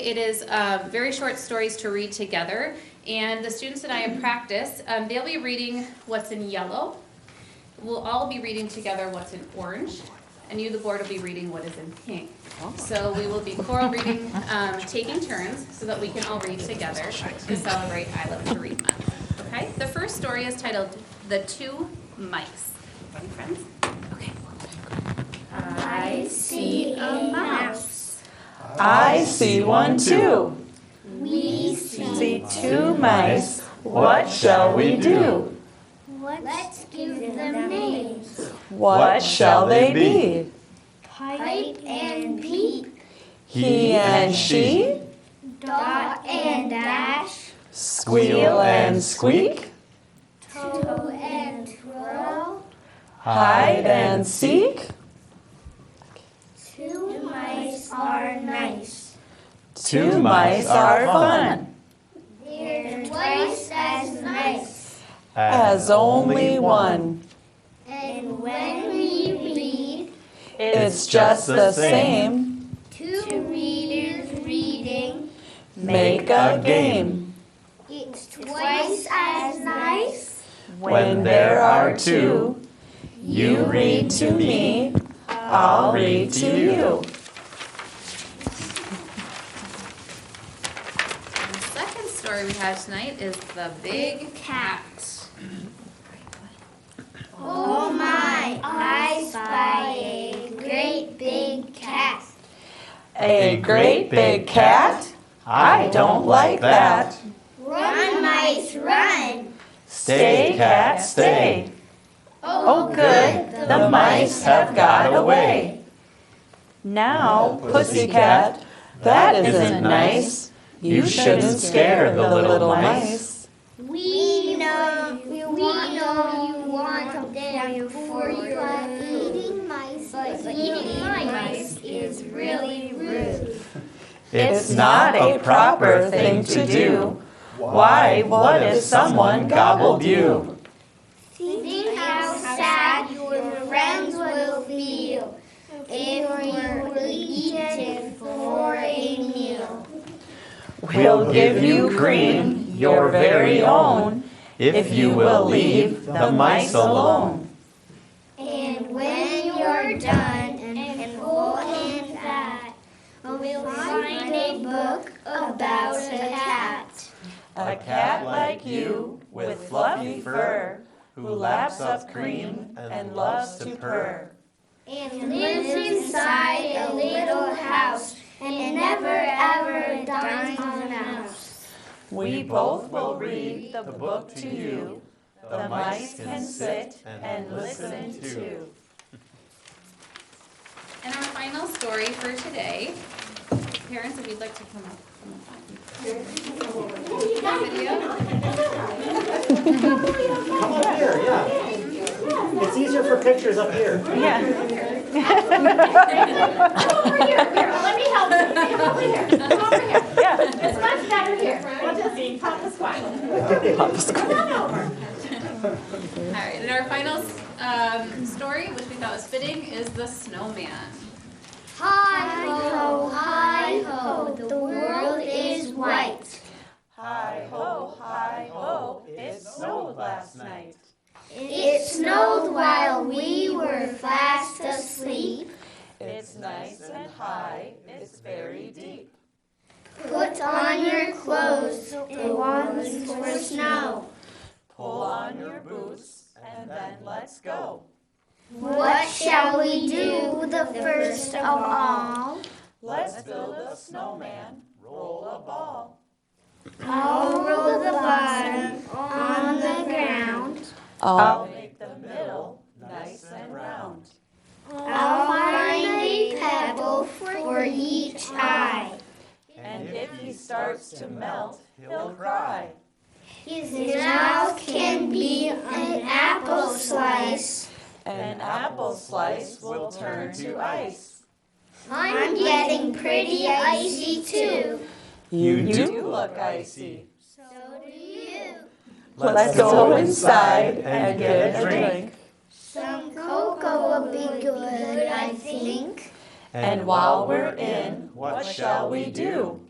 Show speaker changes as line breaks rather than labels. It is uh, very short stories to read together, and the students and I in practice, um, they'll be reading what's in yellow. We'll all be reading together what's in orange, and you, the board, will be reading what is in pink. So we will be choral reading, um, taking turns, so that we can all read together to celebrate I Love to Read Month. Okay? The first story is titled "The Two Mice." Ready, friends? Okay. I see a mouse.
I see one too. We see two mice. What shall we do?
Let's give them names.
What shall they be?
Pipe and peep,
He and she?
dot and dash,
Squeal and squeak?
toe and twirl.
Hide and seek?
Two mice are nice.
Two mice are fun.
They're twice as nice.
As only one.
And when we read,
It's just the same.
two readers reading,
Make a game.
it's twice as nice.
When there are two, you read to me, I'll read to you.
The second story we have tonight is The Big Cat.
Oh my, I spy a great big cat.
A great big cat? I don't like that.
Run, mice, run!
Stay, cat, stay. Oh, good, the mice have got away. Now, pussycat, that isn't nice. You shouldn't scare the little mice.
We know, we know you want them for you, but eating mice, but eating mice is really rude.
It's not a proper thing to do. Why, what if someone gobbled you?
Think how sad your friends will feel if you were eaten for a meal.
We'll give you cream, your very own, if you will leave the mice alone.
And when you're done and full and fat, we'll find a book about a cat.
A cat like you, with fluffy fur, who laps up cream and loves to purr.
and lives inside a little house and never ever dines on a mouse.
We both will read the book to you. The mice can sit and listen too.
And our final story for today, parents, if you'd like to come up. come up. Video.
Come up here, yeah. It's easier for pictures up here.
Yeah.
Over here, here, let me help you. Come over here, come over here. It's much better here. We'll just pop the squat. Come on over.
All right, and our final um, story, which we thought was fitting, is The Snowman.
Hi ho, hi ho, the world is white.
Hi ho, hi ho, it snowed last night.
It snowed while we were fast asleep.
It's nice and high, it's very deep.
Put on your clothes, the ones for snow.
Pull on your boots and then let's go.
What shall we do the first of all?
Let's build a snowman, roll a ball.
I'll roll the bottom on the ground.
I'll make the middle nice and round.
I'll find a pebble for each eye.
And if he starts to melt, he'll cry.
His mouth can be an apple slice.
An apple slice will turn to ice.
I'm getting pretty icy too.
You do look icy.
So do you.
Let's go inside and get a drink.
Some cocoa would be good, I think.
And while we're in, what shall we do?